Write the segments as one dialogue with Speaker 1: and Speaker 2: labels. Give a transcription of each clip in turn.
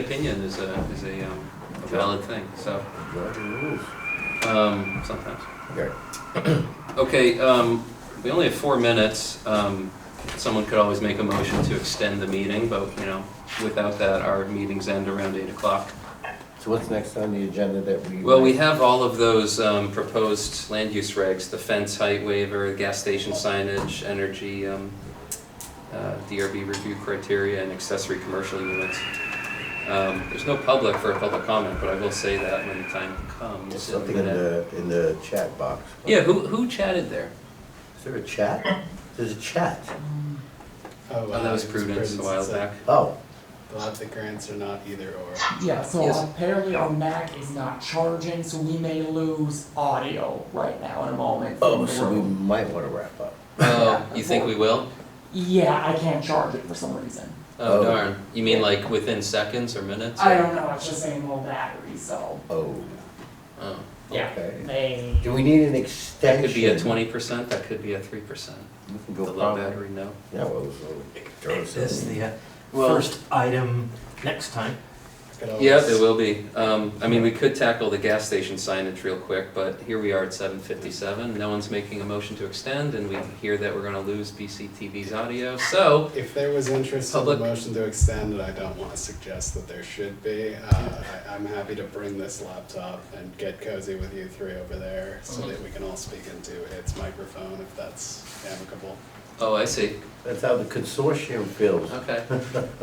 Speaker 1: opinion is a, is a, um, a valid thing, so,
Speaker 2: Roger rules.
Speaker 1: um, sometimes.
Speaker 2: Okay.
Speaker 1: Okay, um, we only have four minutes. Um, someone could always make a motion to extend the meeting, but, you know, without that, our meetings end around eight o'clock.
Speaker 2: So what's next on the agenda that we?
Speaker 1: Well, we have all of those, um, proposed land use regs, the fence height waiver, gas station signage, energy, um, uh, DRB review criteria and accessory commercial units. Um, there's no public for a public comment, but I will say that when the time comes.
Speaker 2: There's
Speaker 1: in a
Speaker 2: Something in
Speaker 1: minute.
Speaker 2: the, in the chat box.
Speaker 1: Yeah, who, who chatted there?
Speaker 2: Is there a chat? There's a chat.
Speaker 1: Oh, that was Prudence a while back.
Speaker 2: Oh,
Speaker 3: A lot of the grants are not either or.
Speaker 4: Yeah, so
Speaker 1: Yes.
Speaker 4: apparently our Mac is not charging, so we may lose audio right now in a moment. from
Speaker 2: oh,
Speaker 4: the
Speaker 2: so we
Speaker 4: room.
Speaker 2: might want to wrap up.
Speaker 1: Oh, you think we will?
Speaker 4: Yeah, I can't charge it for some reason.
Speaker 1: Oh
Speaker 2: Oh.
Speaker 1: darn. You mean like within seconds or minutes?
Speaker 4: I don't know, it's just same old battery, so,
Speaker 2: Oh,
Speaker 1: Oh.
Speaker 4: yeah,
Speaker 2: Okay.
Speaker 4: they,
Speaker 2: do we need an
Speaker 1: That
Speaker 2: extension?
Speaker 1: could be a twenty percent, that could be a three percent.
Speaker 2: We can
Speaker 1: The
Speaker 2: go
Speaker 1: low
Speaker 2: probably.
Speaker 1: battery, no.
Speaker 2: Yeah, well, so. throw us
Speaker 5: This is
Speaker 2: in.
Speaker 5: the uh,
Speaker 1: Well-
Speaker 5: first item next time.
Speaker 3: Could always-
Speaker 1: Yeah, there will be. Um, I mean, we could tackle the gas station signage real quick, but here we are at seven fifty-seven. No one's making a motion to extend, and we hear that we're gonna lose BCTV's audio, so.
Speaker 3: If there was interest in the
Speaker 1: Public-
Speaker 3: motion to extend, and I don't want to suggest that there should be, uh, I- I'm happy to bring this laptop and get cozy with you three over there
Speaker 1: Mm-hmm.
Speaker 3: so that we can all speak into its microphone if that's amicable.
Speaker 1: Oh, I see.
Speaker 2: That's how the consortium feels.
Speaker 1: Okay.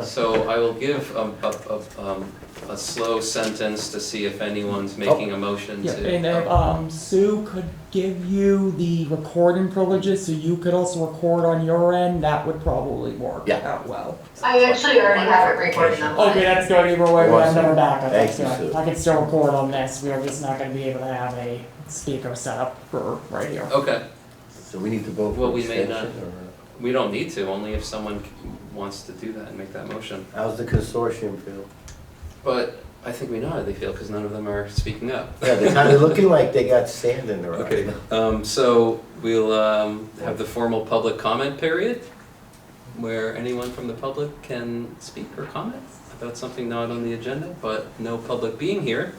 Speaker 1: So I will give a, a, a, um, a slow sentence to see if anyone's making a motion
Speaker 4: yeah,
Speaker 1: to.
Speaker 4: and uh, um, Sue could give you the recording privileges, so you could also record on your end, that would probably work
Speaker 2: Yeah.
Speaker 4: out well.
Speaker 6: I actually already have it recorded on
Speaker 4: Okay, that's Oh, good, either way, we have
Speaker 2: Awesome.
Speaker 4: another backup, that's
Speaker 2: Thank you,
Speaker 4: good.
Speaker 2: Sue.
Speaker 4: I can still record on this, we are just not gonna be able to have a speaker set up for radio.
Speaker 1: Okay,
Speaker 2: So we need to vote
Speaker 1: Well,
Speaker 2: for
Speaker 1: we may
Speaker 2: extension or?
Speaker 1: we don't need to, only if someone c- wants to do that and make that motion.
Speaker 2: How's the consortium feel?
Speaker 1: But I think we know how they feel, because none of them are speaking up.
Speaker 2: Yeah, they're kind of looking like they got sand in their eyes.
Speaker 1: Okay, um, so we'll, um, have the formal public comment period, where anyone from the public can speak or comment about something not on the agenda, but no public being here.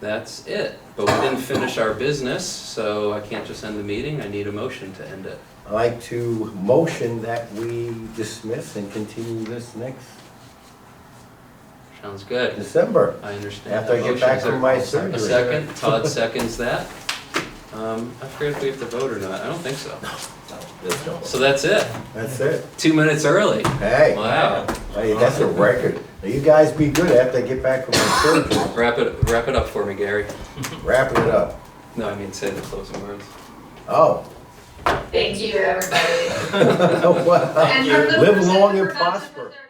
Speaker 1: That's it, but we didn't finish our business, so I can't just end the meeting, I need a motion to end it.
Speaker 2: I'd like to motion that we dismiss and continue this next
Speaker 1: Sounds good,
Speaker 2: December.
Speaker 1: I understand.
Speaker 2: After I get back from my surgery.
Speaker 1: A second, Todd seconds that. Um, I forget if we have to vote or not, I don't think so.
Speaker 2: That's all.
Speaker 1: So that's it,
Speaker 2: That's it.
Speaker 1: two minutes early,
Speaker 2: Hey,
Speaker 1: wow.
Speaker 2: hey, that's a record. Now you guys be good after I get back from my surgery.
Speaker 1: Wrap it, wrap it up for me, Gary.
Speaker 2: Wrapping it up.
Speaker 1: No, I mean, say the closing words.
Speaker 2: Oh.
Speaker 6: Thank you, everybody.
Speaker 2: Wow.
Speaker 6: And from the
Speaker 2: Live
Speaker 6: person-
Speaker 2: long and
Speaker 6: from the person
Speaker 2: prosper.
Speaker 6: that